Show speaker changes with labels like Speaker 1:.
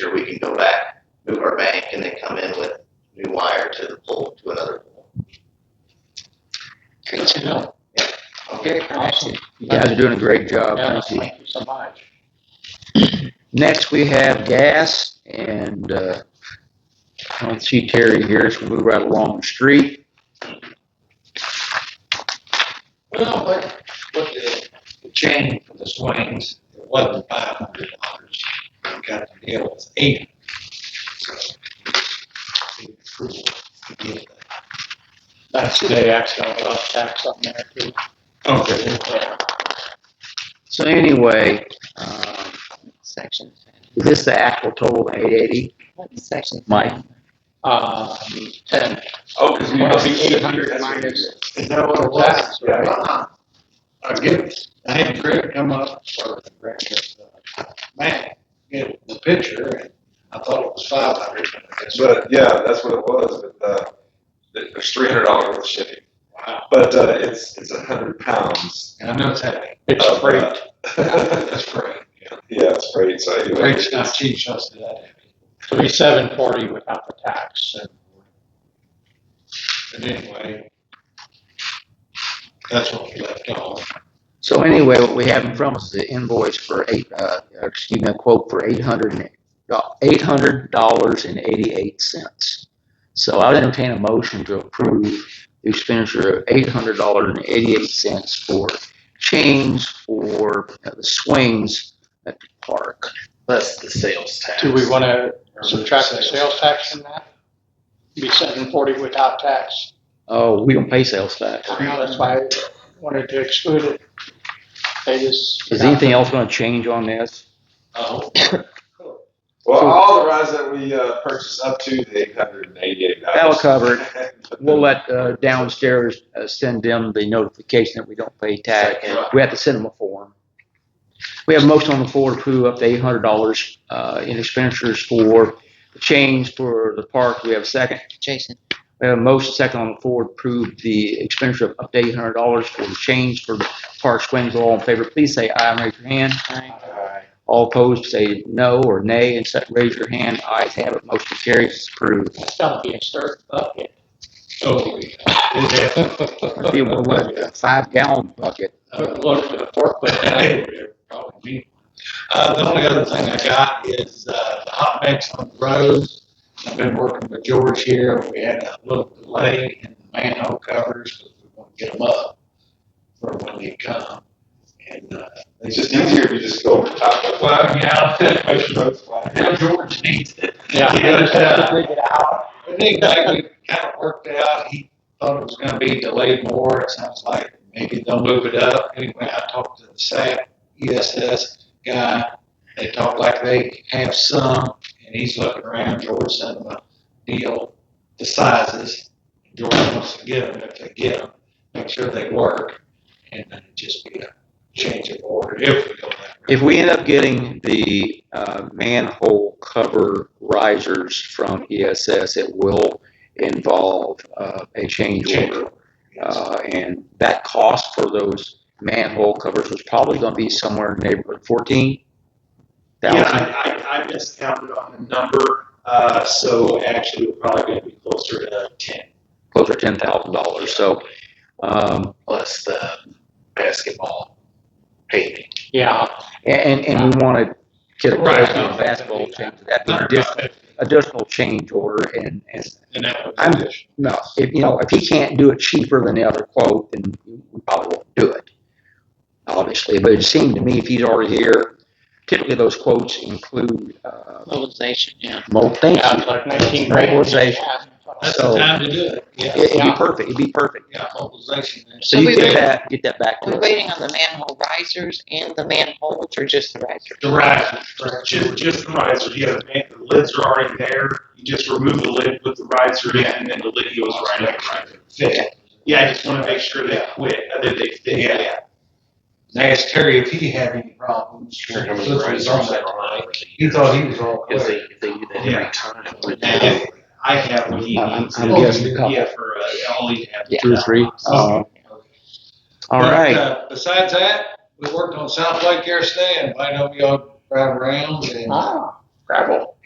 Speaker 1: year we can go back, move our bank, and then come in with new wire to the pole, to another pole.
Speaker 2: Great to know.
Speaker 1: Okay,
Speaker 2: Very awesome.
Speaker 3: You guys are doing a great job.
Speaker 2: Yeah,
Speaker 3: Thank you.
Speaker 2: thank you so much.
Speaker 3: Next, we have gas, and uh, I don't see Terry here, so we'll move right along the street.
Speaker 2: Well, what, what the, the chain for the swings, it wasn't five hundred dollars. We got the deal with eight. So, the approval to get that. That's today, actually, I'll go tax on there too. Okay.
Speaker 3: So anyway, uh,
Speaker 4: Section,
Speaker 3: is this the actual total of 880?
Speaker 4: what section?
Speaker 3: Mike?
Speaker 2: Uh, ten.
Speaker 5: Oh, because you
Speaker 2: Well,
Speaker 5: have
Speaker 2: the
Speaker 5: the
Speaker 2: eight
Speaker 5: eight
Speaker 2: hundred
Speaker 5: hundred
Speaker 2: minus-
Speaker 5: minus.
Speaker 2: Is that what it was? Yeah. I get, I had Greg come up, or Greg, uh, Matt, get the picture, and I thought it was five hundred.
Speaker 5: But yeah, that's what it was. But uh, it- it's three hundred dollars worth of shipping.
Speaker 2: Wow.
Speaker 5: But uh, it's it's a hundred pounds.
Speaker 2: And I know it's heavy. Oh, It's
Speaker 5: of,
Speaker 2: freight.
Speaker 5: uh,
Speaker 2: It's freight. yeah.
Speaker 5: yeah, it's freight. So anyway,
Speaker 2: Freight's not cheap, so it's not that heavy. Thirty-seven forty without the tax. and- But anyway, that's what we left off.
Speaker 3: So anyway, what we have in front of us is the invoice for eight, uh, or excuse me, a quote for eight hundred, uh, eight hundred dollars and eighty-eight cents. So I'll entertain a motion to approve the expenditure of eight hundred dollars and eighty-eight cents for chains for uh, the swings at the park.
Speaker 1: Plus the sales tax.
Speaker 2: Do we want to subtract the sales tax from that? Be seven forty without tax?
Speaker 3: Oh, we don't pay sales tax.
Speaker 2: I know, that's why I wanted to exclude it. They just.
Speaker 3: Is anything else gonna change on this?
Speaker 2: Oh,
Speaker 5: well, all the rides that we uh, purchased up to the eight hundred and eighty-eight dollars.
Speaker 3: That'll cover We'll let uh, downstairs uh, send them the notification that we don't pay tax.
Speaker 1: Second.
Speaker 3: We have to send them a form. We have a motion on the floor to approve up to eight hundred dollars uh, in expenditures for the change for the park. We have a second.
Speaker 4: Jason,
Speaker 3: We have a motion second on the floor to approve the expenditure of up to eight hundred dollars for the change for the park swings. All in favor, please say aye and raise your hand.
Speaker 4: aye.
Speaker 3: All opposed, say no or nay and set, raise your hand. Ayes have it. Motion carries. It's approved.
Speaker 2: don't be a stir bucket. Oh, yeah.
Speaker 3: Be one with a five gallon bucket.
Speaker 2: I would look for the forklift. I would probably need one. Uh, the only other thing I got is, uh, the hot mix on the roads. I've been working with George here. We had a little delay in the manhole covers, because we want to get them up for when they come. And, uh,
Speaker 5: It's just easier if you just go over the top of it.
Speaker 2: well, yeah,
Speaker 5: Push those flat.
Speaker 2: Now George needs it.
Speaker 5: Yeah.
Speaker 2: He just had to figure it out. And exactly, kind of worked it out. He thought it was gonna be delayed more. It sounds like maybe they'll move it up. Anyway, I talked to the SAP ESS guy. They talk like they have some, and he's looking around. George sent him a deal, the sizes. George wants to get them if they get them, make sure they work, and then it'd just be a change of order if we go that route.
Speaker 3: If we end up getting the uh, manhole cover risers from ESS, it will involve uh, a change
Speaker 2: Change
Speaker 3: order. Uh, And that cost for those manhole covers was probably going to be somewhere in the neighborhood fourteen
Speaker 6: Yeah,
Speaker 3: thousand.
Speaker 6: I, I, I miscounted on the number, uh, so actually we're probably gonna be closer to ten.
Speaker 3: closer to ten thousand dollars. So, um,
Speaker 1: Plus the basketball paving.
Speaker 2: Yeah,
Speaker 3: and, and we want to get a
Speaker 2: Right.
Speaker 3: question on basketball change. That'd be an additional- additional change order and, and
Speaker 6: And that would
Speaker 3: I'm- No, if, you know, if he can't do it cheaper than the other quote, then we probably won't do it, obviously. But it seemed to me if he's already here, typically those quotes include, uh,
Speaker 4: Mobilization, yeah.
Speaker 3: more things.
Speaker 2: Yeah, it's like nineteen grand.
Speaker 3: Mobilization.
Speaker 2: Yeah.
Speaker 6: That's the time to do it, yeah.
Speaker 3: It- It'd be perfect, it'd be perfect.
Speaker 2: Yeah, mobilization.
Speaker 3: So
Speaker 4: So
Speaker 3: you
Speaker 4: we
Speaker 3: get
Speaker 4: would-
Speaker 3: that, get that back.
Speaker 4: We're waiting on the manhole risers and the manholes or just the risers?
Speaker 6: The riser, just, just the riser, yeah, the man- the lids are already there, you just remove the lid, put the riser in, and then the lid goes right up, right fit. Yeah, I just wanna make sure they quit, uh, that they fit, yeah.
Speaker 2: They asked Terry if he had any problems. Sure.
Speaker 6: Since we was on that line,
Speaker 2: He thought he was all
Speaker 1: If they,
Speaker 2: clear.
Speaker 1: if they do that
Speaker 6: Yeah.
Speaker 1: every time. wouldn't
Speaker 6: And
Speaker 1: they?
Speaker 6: if I have what he
Speaker 3: I'm-
Speaker 6: needs.
Speaker 3: I'm guessing a couple.
Speaker 6: Yeah, for, uh, all he has.
Speaker 3: Two or three. Uh, All
Speaker 2: But,
Speaker 3: right.
Speaker 2: uh, Besides that, we worked on South Lake Air Stand. I know we all drive around and
Speaker 4: Ah, gravel.